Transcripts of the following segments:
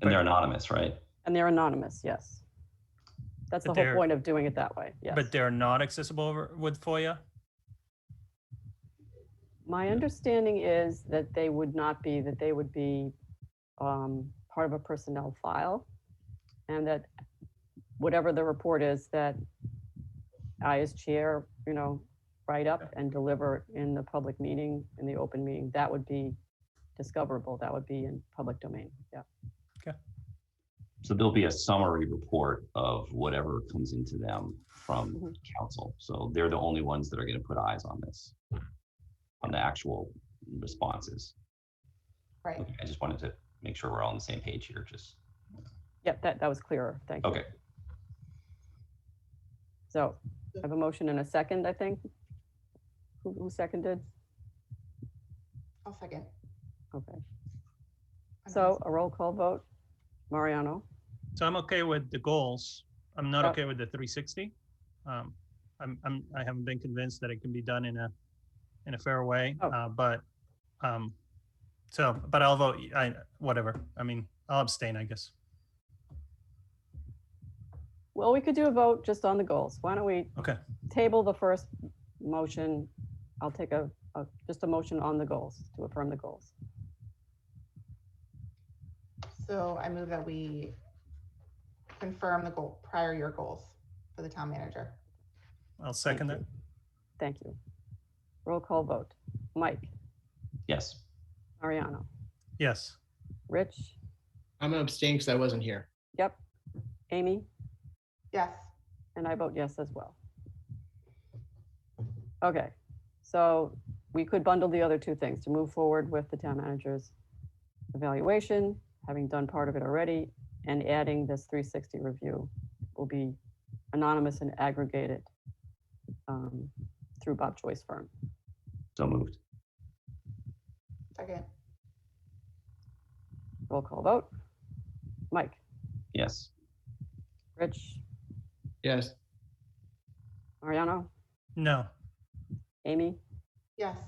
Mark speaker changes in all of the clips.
Speaker 1: And they're anonymous, right?
Speaker 2: And they're anonymous, yes. That's the
Speaker 3: But
Speaker 2: whole
Speaker 3: they're-
Speaker 2: point of doing it that way, yes.
Speaker 3: But they're not accessible over- with FOIA?
Speaker 2: My understanding is that they would not be, that they would be um, part of a personnel file. And that whatever the report is, that I as chair, you know, write up and deliver in the public meeting, in the open meeting, that would be discoverable, that would be in public domain, yeah.
Speaker 1: So there'll be a summary report of whatever comes into them from
Speaker 2: Mhm.
Speaker 1: council. So they're the only ones that are going to put eyes on this, on the actual responses.
Speaker 4: Right.
Speaker 1: Okay, I just wanted to make sure we're all on the same page here, just,
Speaker 2: Yep, that, that was clearer, thank you.
Speaker 1: okay.
Speaker 2: So I have a motion and a second, I think. Who who seconded?
Speaker 4: I'll second.
Speaker 2: Okay,
Speaker 4: I'm
Speaker 2: so a roll call vote. Mariano?
Speaker 3: So I'm okay with the goals. I'm not
Speaker 2: Uh,
Speaker 3: okay with the 360. Um, I'm, I'm, I haven't been convinced that it can be done in a, in a fair way,
Speaker 2: Oh.
Speaker 3: uh, but, um, so, but I'll vote, y- I, whatever. I mean, I'll abstain, I guess.
Speaker 2: Well, we could do a vote just on the goals. Why don't we
Speaker 3: Okay.
Speaker 2: table the first motion? I'll take a, a- just a motion on the goals, to affirm the goals.
Speaker 4: So I move that we confirm the goal, prior year goals for the town manager.
Speaker 3: I'll second that.
Speaker 2: Thank you. Roll call vote. Mike,
Speaker 1: Yes,
Speaker 2: Mariano,
Speaker 3: Yes.
Speaker 2: Rich,
Speaker 5: I'm gonna abstain because I wasn't here.
Speaker 2: yep, Amy,
Speaker 4: Yes,
Speaker 2: and I vote yes as well. Okay, so we could bundle the other two things to move forward with the town manager's evaluation, having done part of it already, and adding this 360 review will be anonymous and aggregated um, through Bob Choi's firm.
Speaker 1: so moved.
Speaker 4: second.
Speaker 2: Roll call vote. Mike,
Speaker 1: Yes,
Speaker 2: Rich,
Speaker 5: Yes,
Speaker 2: Mariano,
Speaker 3: No.
Speaker 2: Amy,
Speaker 4: Yes,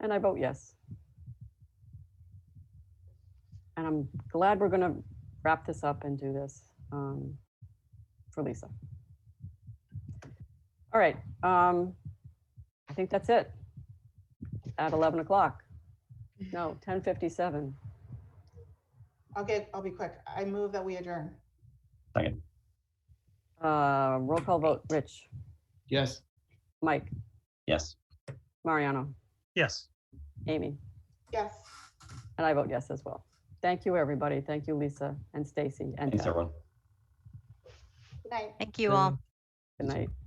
Speaker 2: And I vote yes. And I'm glad we're gonna wrap this up and do this um, for Lisa. All right, um, I think that's it. At 11 o'clock. No, 10:57.
Speaker 4: I'll get, I'll be quick. I move that we adjourn.
Speaker 2: Uh, Roll call vote, Rich,
Speaker 5: yes.
Speaker 2: Mike,
Speaker 1: yes.
Speaker 2: Mariano,
Speaker 3: Yes.
Speaker 2: Amy,
Speaker 4: Yes,
Speaker 2: and I vote yes as well. Thank you, everybody. Thank you, Lisa and Stacy and
Speaker 1: Thanks,
Speaker 2: Deb.
Speaker 1: everyone.
Speaker 4: good night.
Speaker 6: Thank you all.
Speaker 2: Good night.